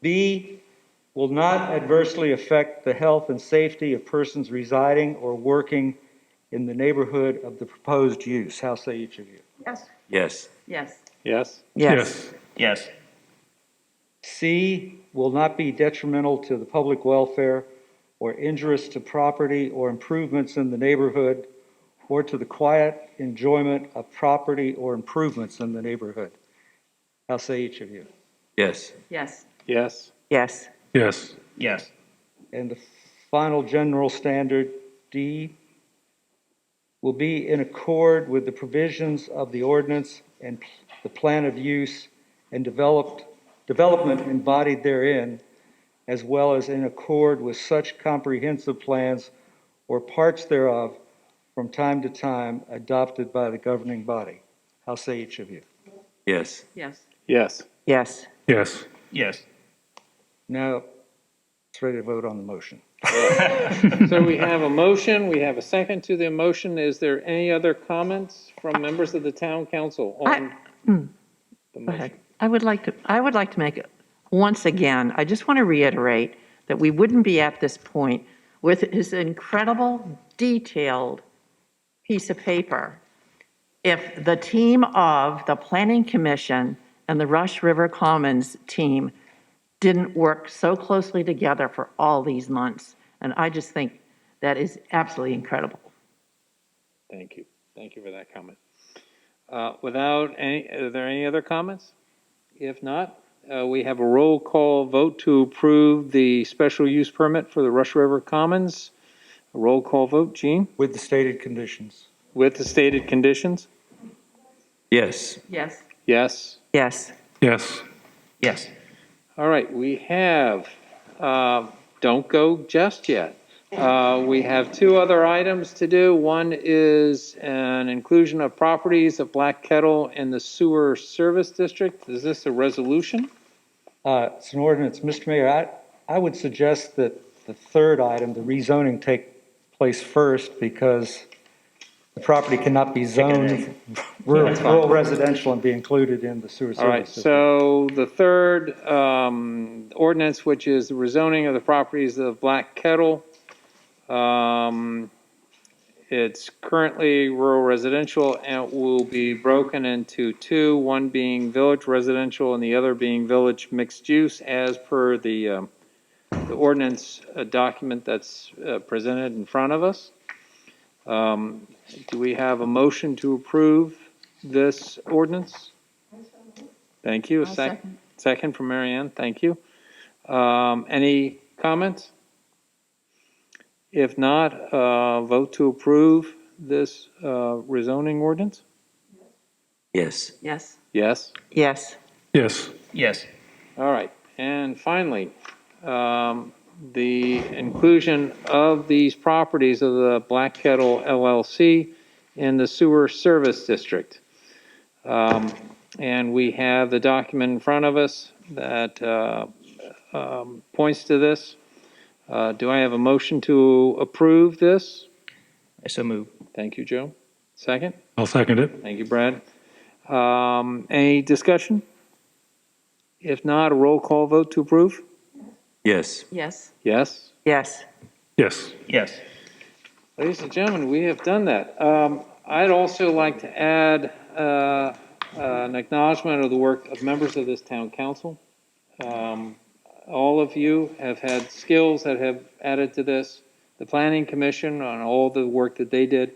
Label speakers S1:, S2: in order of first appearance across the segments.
S1: B, will not adversely affect the health and safety of persons residing or working in the neighborhood of the proposed use. How say each of you?
S2: Yes.
S3: Yes.
S2: Yes.
S4: Yes.
S5: Yes.
S3: Yes.
S1: C, will not be detrimental to the public welfare or injurious to property or improvements in the neighborhood or to the quiet enjoyment of property or improvements in the neighborhood. How say each of you?
S3: Yes.
S2: Yes.
S4: Yes.
S5: Yes.
S4: Yes.
S3: Yes.
S1: And the final general standard, D, will be in accord with the provisions of the ordinance and the plan of use and developed, development embodied therein, as well as in accord with such comprehensive plans or parts thereof from time to time adopted by the governing body. How say each of you?
S3: Yes.
S2: Yes.
S4: Yes.
S5: Yes.
S4: Yes.
S3: Yes.
S1: Now, it's ready to vote on the motion.
S4: So we have a motion, we have a second to the motion. Is there any other comments from members of the town council on the
S5: hmm, Go ahead.
S4: motion?
S5: I would like to, I would like to make, once again, I just want to reiterate that we wouldn't be at this point with his incredible detailed piece of paper if the team of the Planning Commission and the Rush River Commons team didn't work so closely together for all these months. And I just think that is absolutely incredible.
S4: Thank you. Thank you for that comment. Uh, Without any, are there any other comments? If not, uh, we have a roll call vote to approve the special use permit for the Rush River Commons. A Roll call vote, Gene,
S1: With the stated conditions.
S4: with the stated conditions?
S3: Yes.
S2: Yes.
S4: Yes.
S5: Yes.
S6: Yes.
S3: Yes.
S4: All right, we have, uh, don't go just yet. Uh, We have two other items to do. One is an inclusion of properties of Black Kettle in the sewer service district. Is this a resolution?
S1: Uh, It's an ordinance, Mr. Mayor, I, I would suggest that the third item, the rezoning, take place first because the property cannot be zoned rural rural residential and be included in the sewer
S4: All right,
S1: service system.
S4: so the third um, ordinance, which is the rezoning of the properties of Black Kettle. um, It's currently rural residential and will be broken into two, one being village residential and the other being village mixed use as per the um, the ordinance uh, document that's uh, presented in front of us. Um, Do we have a motion to approve this ordinance? Thank you. A
S2: I'll
S4: sec-
S2: second.
S4: Second from Marianne. thank you. Um, Any comments? If not, uh, vote to approve this uh, rezoning ordinance?
S3: Yes.
S2: Yes.
S4: Yes.
S5: Yes.
S6: Yes.
S3: Yes.
S4: All right. And finally, um, the inclusion of these properties of the Black Kettle LLC in the Sewer Service District. Um, And we have the document in front of us that uh, um, points to this. Uh, Do I have a motion to approve this?
S3: I so move.
S4: Thank you, Joe. Second?
S6: I'll second it.
S4: Thank you, Brad. Um, Any discussion? If not, a roll call vote to approve?
S3: Yes.
S2: Yes.
S4: Yes.
S5: Yes.
S6: Yes.
S3: Yes.
S4: Ladies and gentlemen, we have done that. Um, I'd also like to add uh, an acknowledgement of the work of members of this town council. Um, All of you have had skills that have added to this, the planning commission on all the work that they did.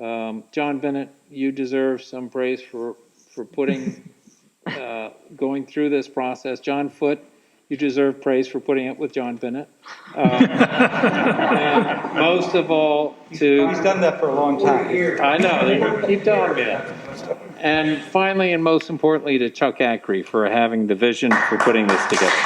S4: Um, John Bennett, you deserve some praise for, for putting, uh, going through this process. John Foote, you deserve praise for putting up with John Bennett. Um, And most of all, to.
S1: He's done that for a long time.
S4: I know, keep telling me that. And finally, and most importantly, to Chuck Ackrey for having the vision for putting this together.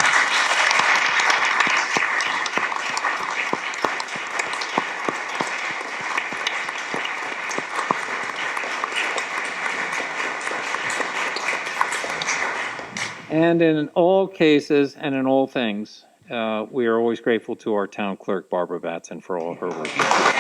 S4: And in all cases and in all things, uh, we are always grateful to our town clerk, Barbara Batson, for all her work.